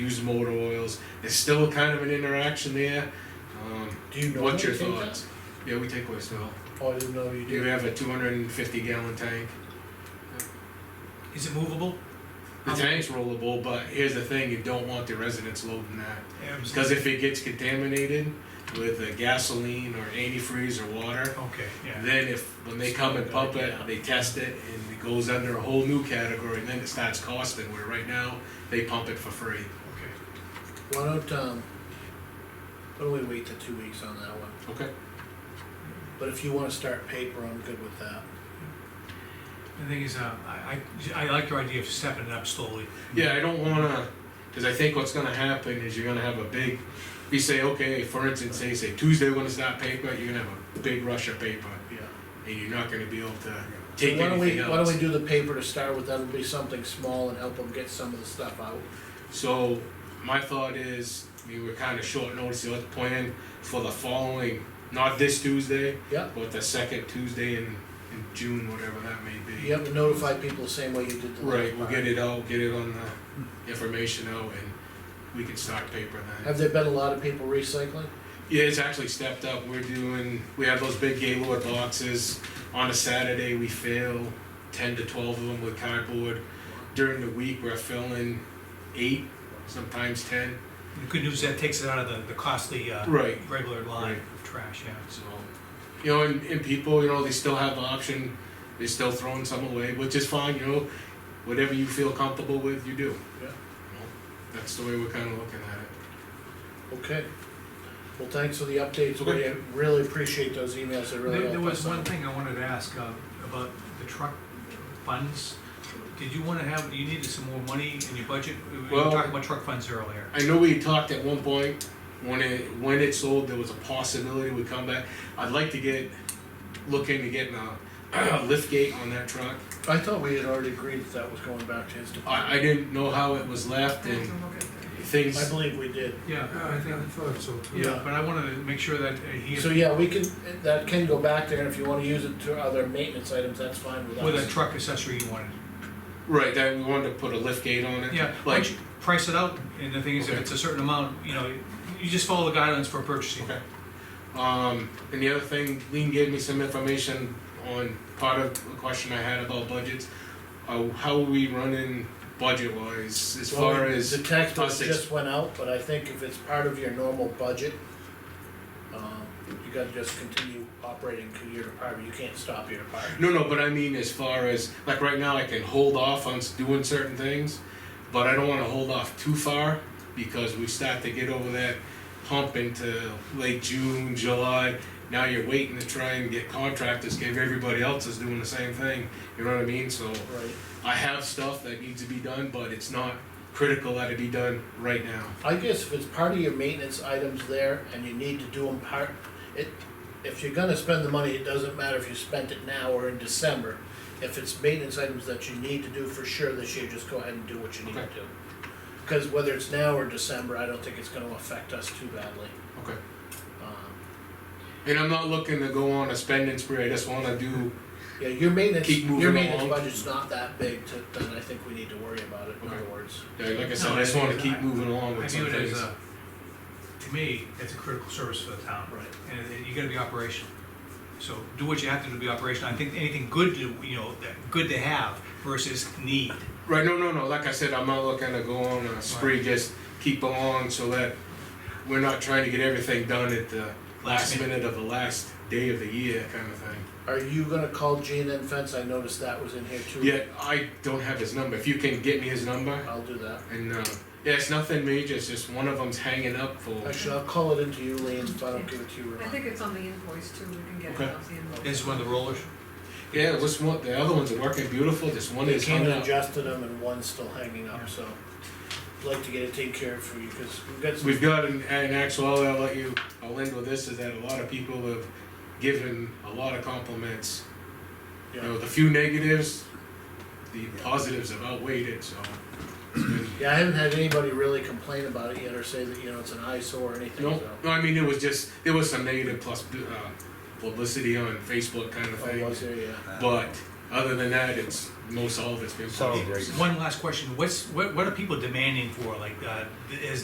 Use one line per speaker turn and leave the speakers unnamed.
used motor oils. There's still kind of an interaction there. Um,
Do you know?
what's your
you take that?
thoughts? Yeah, we take waste oil.
Oh, I didn't know you
You
did.
have a two hundred and fifty gallon tank.
Is it movable?
The tank's rollable, but here's the thing, you don't want the residents loading that.
Mm-hmm.
Okay,
Because if it gets contaminated with uh, gasoline or antifreeze or water,
yeah.
then if, when they come and pump it, they test it and it goes under a whole new category, then it starts costing, where right now, they pump it for free.
Okay.
Why don't, um, why don't we wait the two weeks on that one?
Okay.
But if you wanna start paper, I'm good with that.
The thing is, uh, I, I, I like your idea of stepping it up slowly.
Yeah, I don't wanna, cause I think what's gonna happen is you're gonna have a big, we say, okay, for instance, say, say Tuesday we're gonna start paper, you're gonna have a big rush of paper,
Yeah.
and you're not gonna be able to take
Why don't we-
anything
Why don't we
else.
do the paper to start with, that'll be something small and help them get some of the stuff out.
So, my thought is, we were kinda short notice, let's plan for the following, not this Tuesday,
Yep,
but the second Tuesday in, in June, whatever that may be.
you have to notify people the same way you did the last
Right, we'll
part.
get it out, get it on the information out, and we can start paper then.
Have there been a lot of people recycling?
Yeah, it's actually stepped up. We're doing, we have those big Gaylord boxes. On a Saturday, we fill ten to twelve of them with cardboard. During the week, we're filling eight, sometimes ten.
The good news is that takes it out of the, the costly, uh,
Right.
regular line
Right.
of trash, yeah.
So, you know, and, and people, you know, they still have the option. They're still throwing some away, which is fine, you know. Whatever you feel comfortable with, you do.
Yeah.
You know, That's the way we're kind of looking at it.
Okay. Well, thanks for the updates, we
Okay.
really appreciate those emails, they really
There,
help
there was
us
one
out.
thing I wanted to ask, uh, about the truck funds. Did you wanna have, you needed some more money in your budget? We were
Well-
talking about truck funds earlier.
I know we talked at one point when it when it sold, there was a possibility it would come back. I'd like to get looking to getting a lift gate on that truck.
I thought we had already agreed that that was going back to his
I, I
department.
didn't know how it was left and
I
things.
believe we did.
Yeah, I think,
thought so too.
yeah, but I wanted to make sure that uh, he,
So, yeah, we can, that can go back there, and if you wanna use it to other maintenance items, that's fine with
with a
us.
truck accessory you wanted.
Right, that we wanted to put a lift gate on it.
Yeah, why don't
Like,
you price it out, and the thing is, if
Okay.
it's a certain amount, you know, you just follow the guidelines for purchasing.
Okay. um, and the other thing, Lean gave me some information on part of the question I had about budgets. Uh, how are we running budget wise as
Well,
far as?
The tax bill
us ex-
just went out, but I think if it's part of your normal budget, um, you gotta just continue operating your department, you can't stop your department.
No, no, but I mean as far as, like right now, I can hold off on s- doing certain things, but I don't wanna hold off too far, because we start to get over that hump into late June, July. Now you're waiting to try and get contractors, give everybody else is doing the same thing, you know what I mean? So
Right.
I have stuff that needs to be done, but it's not critical that it be done right now.
I guess if it's part of your maintenance items there and you need to do them part, it, if you're gonna spend the money, it doesn't matter if you spent it now or in December. If it's maintenance items that you need to do for sure this year, just go ahead and do what you need to
Okay.
do. Cause whether it's now or December, I don't think it's gonna affect us too badly.
Okay.
Um,
And I'm not looking to go on a spending spree, I just wanna do,
Yeah, your maintenance,
Keep moving
your maintenance
along.
budget's not that big to, then I think we need to worry about it, in other
Okay.
words.
yeah, like I said, I just wanna keep moving along
I
with some
view it as
things.
a, to me, it's a critical service for the town.
Right.
And it- you gotta be operational. So do what you have to do to be operational. I think anything good to, you know, that good to have versus need.
Right, no, no, no, like I said, I'm not looking to go on a spree, just keep along so that we're not trying to get everything done at the last minute of the last day of the year kind of thing.
Are you gonna call Gene and Fence? I noticed that was in here too.
Yet, I don't have his number, if you can get me his number,
I'll do that.
and, uh, yeah, it's nothing major, it's just one of them's hanging up for,
Actually, I'll call it into you, Lean, if I don't give it to you,
I
Ron.
think it's on the invoice too, we can get
Okay.
it off the invoice.
This is one of the rollers.
yeah, what's one, the other ones are working beautiful, this one
They
is
came
hung
and
up.
adjusted them and one's still hanging up, so I'd like to get it taken care of for you, cause we've got some,
We've got an, an actuality, I'll let you, I'll end with this, is that a lot of people have given a lot of compliments You know,
yeah.
the few negatives, the positives have outweighed it, so. it's been-
Yeah, I haven't had anybody really complain about it yet or say that, you know, it's an eyesore or anything,
No,
so.
no, I mean, it was just, there was some negative plus, uh, publicity on Facebook kind of
Oh,
thing,
was there, yeah.
but Other than that, it's, most all of it's been.
So- Oh, great.
One last question, what's, what, what are people demanding for, like, uh, is